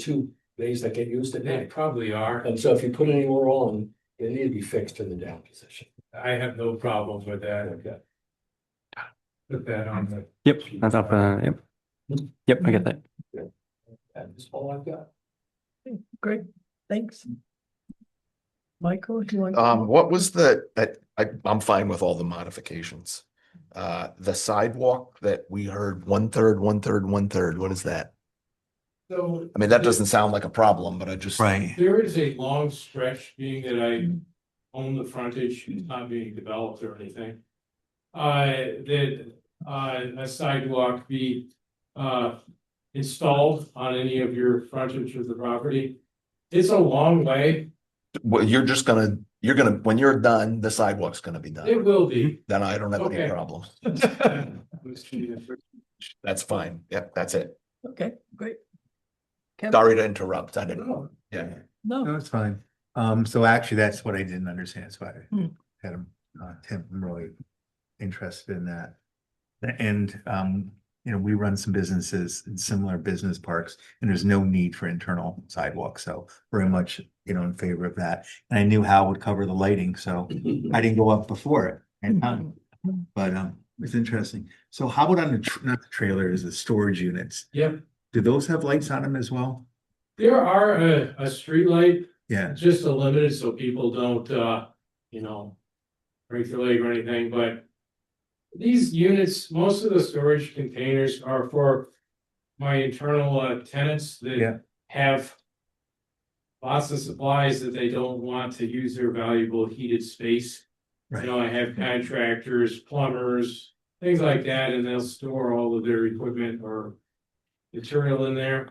two bays that get used at They night. probably are. And so if you put any more on, they need to be fixed in the down position. I have no problems with that. Okay. Put that on the. Yep, that's up, uh, yep. Hmm. Yep, I get that. That's all I've got. Great, thanks. Michael, do you want? Um, what was the, that, I, I'm fine with all the modifications. Uh, the sidewalk that we heard one third, one third, one third, what is that? So. I mean, that doesn't sound like a problem, but I just. Right. There is a long stretch, being that I own the frontage, it's not being developed or anything. Uh, that, uh, a sidewalk be, uh, installed on any of your frontage of the property. It's a long way, Well, you're just gonna, you're gonna, when you're done, the sidewalk's gonna be it done. will be. Then I don't have any Okay. problems. That's fine. Yep, that's it. Okay, great. Kevin? Sorry to interrupt. I didn't, No, yeah. No, No, it's fine. Um, so actually, that's what I didn't understand, so I Hmm. had him, uh, Tim, I'm really interested in that. And, um, you know, we run some businesses in similar business parks, and there's no need for internal sidewalks, so very much, you know, in favor of that. And I knew Hal would cover the lighting, so I didn't go up before it. Hmm. And, um, But, um, it's interesting. So how about on the, tr- not the trailers, the storage units? Yep. Do those have lights on them as well? There are a, a streetlight Yeah, Just a limit so people don't, uh, you know, break their leg or anything, but these units, most of the storage containers are for my internal uh, tenants Yeah. that have lots of supplies that they don't want to use their valuable heated space. You Right. know, I have contractors, plumbers, things like that, and they'll store all of their equipment or material in there.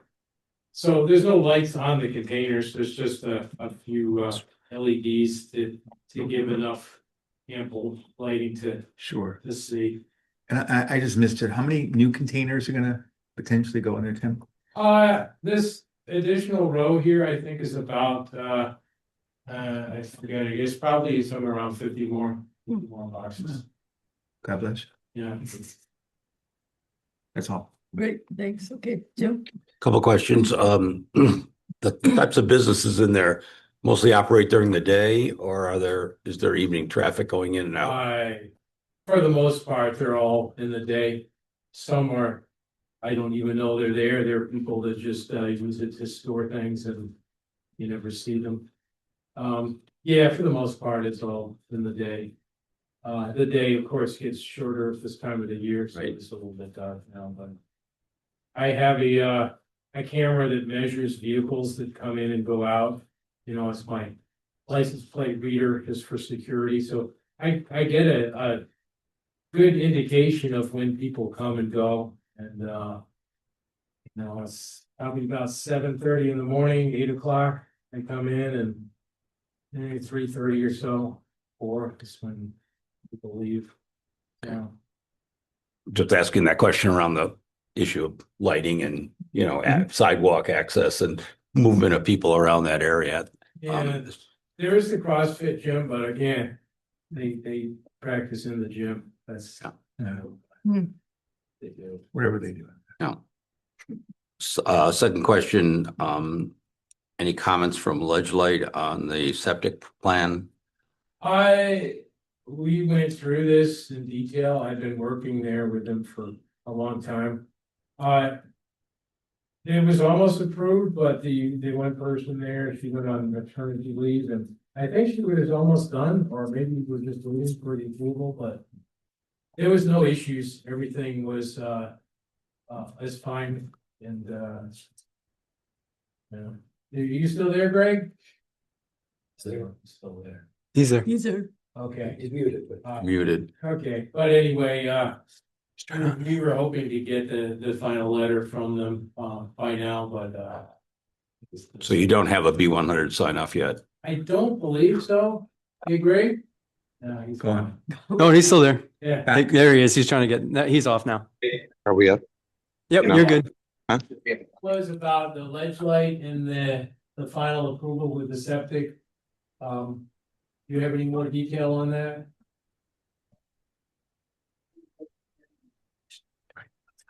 So there's no lights on the containers, there's just a, a few, uh, LEDs to, to give enough ample lighting to, sure. to see. And I, I- I just missed it. How many new containers are gonna potentially go in there, Tim? Uh, this additional row here, I think is about, uh, uh, I forget, I guess probably somewhere around fifty more, more boxes, God bless. you. yeah. That's all. great, thanks. Okay, Jim, Couple questions. Um, the types of businesses in there mostly operate during the day or are there, is there evening traffic going in and out? I, for the most part, they're all in the day. Some are, I don't even know they're there. There are people that just uh, use it to store things and you never see them. Um, yeah, for the most part, it's all in the day. Uh, the day, of course, gets shorter at this time of the year, so Right. it's a little bit dark now, but I have a, uh, a camera that measures vehicles that come in and go out. You know, it's my license plate reader is for security, so I, I get a, a good indication of when people come and go and, uh, you know, it's probably about seven thirty in the morning, eight o'clock, they come in and maybe three thirty or so, or just when people leave. Yeah, Just asking that question around the issue of lighting and, you know, a- sidewalk access and movement of people around that area. Um, and there is the CrossFit gym, but again, they, they practice in the gym, that's. uh, Yeah. Hmm. They do. Whatever they do. s- Uh, second question, um, any comments from Ledge Light on the septic plan? I, we went through this in detail. I've been working there with them for a long time. Uh. It was almost approved, but the, the one person there, she went on maternity leave and I think she was almost done, or maybe we're just waiting for the approval, but. There was no issues. Everything was, uh, uh, is fine and, uh. Yeah, are you still there, Greg? So Still there. These are. these are, Okay. he's muted, but Uh, Muted. Okay, but anyway, uh, we were hoping to get the, the final letter from them, um, by now, but, uh. So you don't have a B one hundred sign off yet? I don't believe so. You agree? No, he's Go on. gone. Oh, he's still there. Yeah, I think- There he is. He's trying to get, no, he's off now. Are we up? Yep, No. you're good. was about the ledge light and the, the final approval with the septic. Um, you have any more detail on that?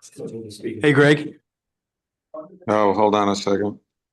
so he can speak. Hey, Greg. Oh, hold on a second.